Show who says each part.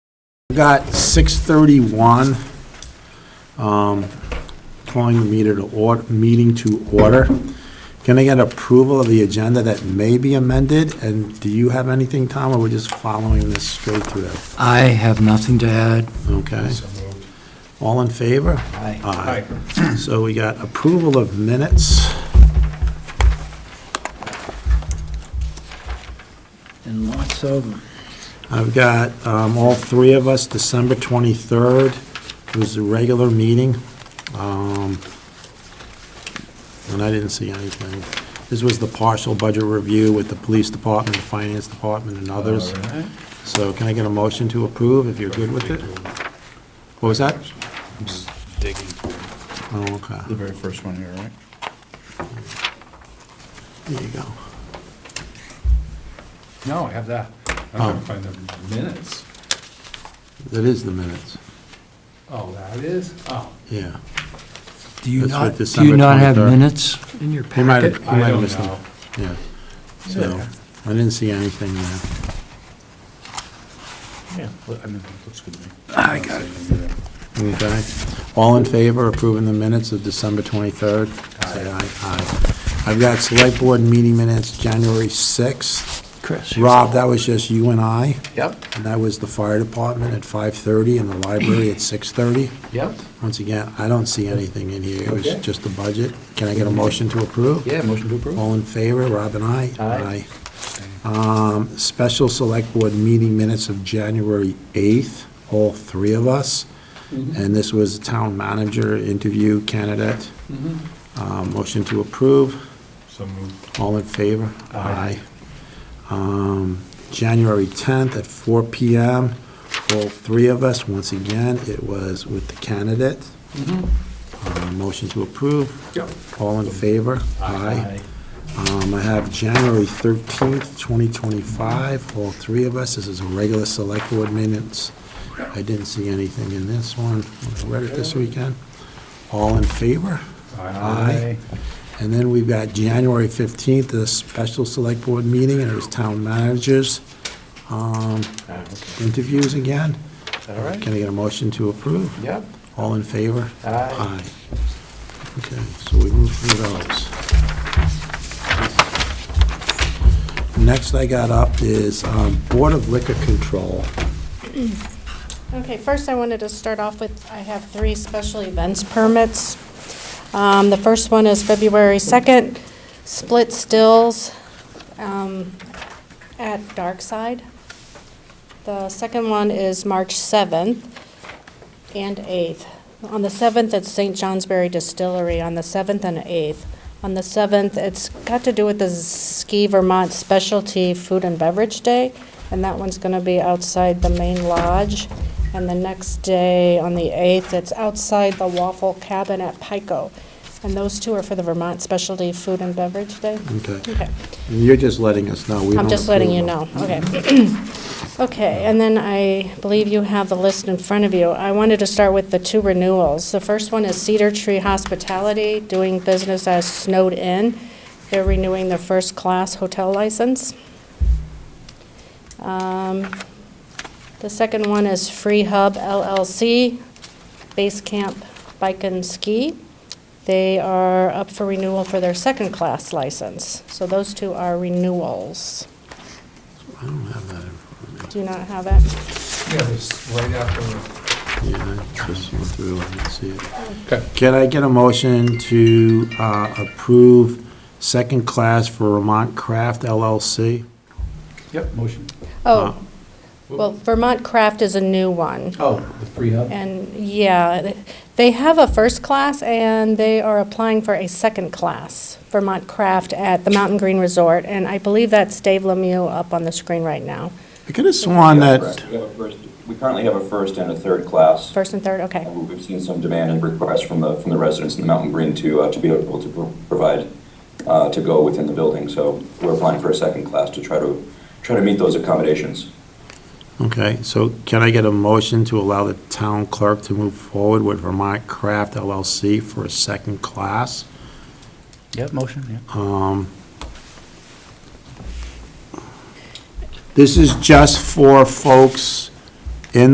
Speaker 1: We Got 6:31, um, calling the meter to order, meeting to order. Can I get approval of the agenda that may be amended? And do you have anything, Tom, or we're just following this straight through?
Speaker 2: I have nothing to add.
Speaker 1: Okay. All in favor?
Speaker 2: Aye.
Speaker 1: Aye. So we got approval of minutes.
Speaker 2: And lots of them.
Speaker 1: I've got um, all three of us, December 23rd was the regular meeting. um, And I didn't see anything. This was the partial budget review with the police department, the finance department, and
Speaker 3: Oh,
Speaker 1: others. So can I get a motion to approve if you're good with it? What was that?
Speaker 3: I'm just digging for
Speaker 1: Oh, okay.
Speaker 3: the very first one here, right?
Speaker 1: There you go.
Speaker 3: No, I have that. I'm
Speaker 1: Oh.
Speaker 3: trying to find the minutes.
Speaker 1: That is the minutes.
Speaker 3: Oh, that is? Oh.
Speaker 1: Yeah.
Speaker 2: Do you
Speaker 1: That's
Speaker 2: not,
Speaker 1: with
Speaker 2: do you
Speaker 1: December
Speaker 2: not have
Speaker 1: 23rd.
Speaker 2: minutes in your
Speaker 1: He might have,
Speaker 2: packet?
Speaker 1: he
Speaker 3: I
Speaker 1: might have
Speaker 3: don't
Speaker 1: missed them.
Speaker 3: know.
Speaker 1: Yeah. So,
Speaker 3: Yeah.
Speaker 1: I didn't see anything there.
Speaker 3: Yeah, I mean, looks good to me.
Speaker 2: I got
Speaker 3: it.
Speaker 1: Okay. All in favor of approving the minutes of December 23rd? Say aye. Aye. I've got select board meeting minutes, January 6th.
Speaker 2: Chris.
Speaker 1: Rob, that was just you and I,
Speaker 3: Yep,
Speaker 1: and that was the fire department at 5:30 and the library at 6:30.
Speaker 3: yep.
Speaker 1: Once again, I don't see anything in here. It was
Speaker 3: Okay.
Speaker 1: just the budget. Can I get a motion to approve?
Speaker 3: Yeah, motion to approve.
Speaker 1: All in favor, Rob and I?
Speaker 3: Aye.
Speaker 1: Um, Special Select Board meeting minutes of January 8th, all three of us.
Speaker 3: Mm-hmm.
Speaker 1: And this was town manager interview candidate.
Speaker 3: Mm-hmm.
Speaker 1: Uh, Motion to approve.
Speaker 3: So moved.
Speaker 1: All in favor?
Speaker 3: Aye.
Speaker 1: Um, January 10th at 4 PM, all three of us, once again, it was with the candidate. Uh, Motion to approve.
Speaker 3: Mm-hmm. Yep.
Speaker 1: All in favor? Um, I have January 13th, 2025, all three of us. This is a regular select board minutes. I didn't see anything in this one. I read it this weekend. All in favor? Aye. And then we've got January 15th, the special select board meeting, and it was town managers um,
Speaker 3: Aye.
Speaker 1: interviews again.
Speaker 3: Ah, All right,
Speaker 1: Can I get a motion to approve?
Speaker 3: yep.
Speaker 1: All in favor?
Speaker 3: Aye.
Speaker 1: Aye. Okay, so we move through those. Next I got up is um, Board of Liquor Control.
Speaker 4: Okay, first I wanted to start off with, I have three special events permits. Um, The first one is February 2nd, Split Stills um, at Darkside. The second one is March 7th and 8th. On the 7th, it's St. Johnsbury Distillery, on the 7th and 8th. On the 7th, it's got to do with the Ski Vermont Specialty Food and Beverage Day, and that one's going to be outside the main lodge. And the next day, on the 8th, it's outside the Waffle Cabin at Pico. And those two are for the Vermont Specialty Food and Beverage Day.
Speaker 1: Okay,
Speaker 4: Okay.
Speaker 1: and you're just letting us know. we
Speaker 4: I'm
Speaker 1: don't
Speaker 4: just letting you
Speaker 1: approve
Speaker 4: know,
Speaker 1: them.
Speaker 4: okay. Okay, and then I believe you have the list in front of you. I wanted to start with the two renewals. The first one is Cedar Tree Hospitality, doing business as Snowed Inn. They're renewing their first-class hotel license. Um, The second one is Free Hub LLC, Base Camp Bike and Ski. They are up for renewal for their second-class license. So those two are renewals.
Speaker 1: I don't have that in front
Speaker 4: Do you not have it?
Speaker 3: Yeah, it's right after.
Speaker 1: of me. Yeah, I just went through, I didn't see it.
Speaker 3: Okay.
Speaker 1: Can I get a motion to uh, approve second class for Vermont Craft LLC?
Speaker 3: Yep, motion.
Speaker 1: Uh,
Speaker 4: Oh, well, Vermont Craft is a new one.
Speaker 3: Oh, the free hub?
Speaker 4: And, yeah, th- they have a first class, and they are applying for a second class, Vermont Craft at the Mountain Green Resort, and I believe that's Dave Lemieux up on the screen right now.
Speaker 1: I could have sworn that,
Speaker 5: Correct. We have a first- We currently have a first and a third class.
Speaker 4: First and third, okay.
Speaker 5: And We've seen some demand and requests from the, from the residents in the Mountain Green to, uh, to be able to pro- provide, uh, to go within the building. So we're applying for a second class to try to, try to meet those accommodations.
Speaker 1: okay, so can I get a motion to allow the town clerk to move forward with Vermont Craft LLC for a second class?
Speaker 3: Yep, motion, yeah.
Speaker 1: Um, This is just for folks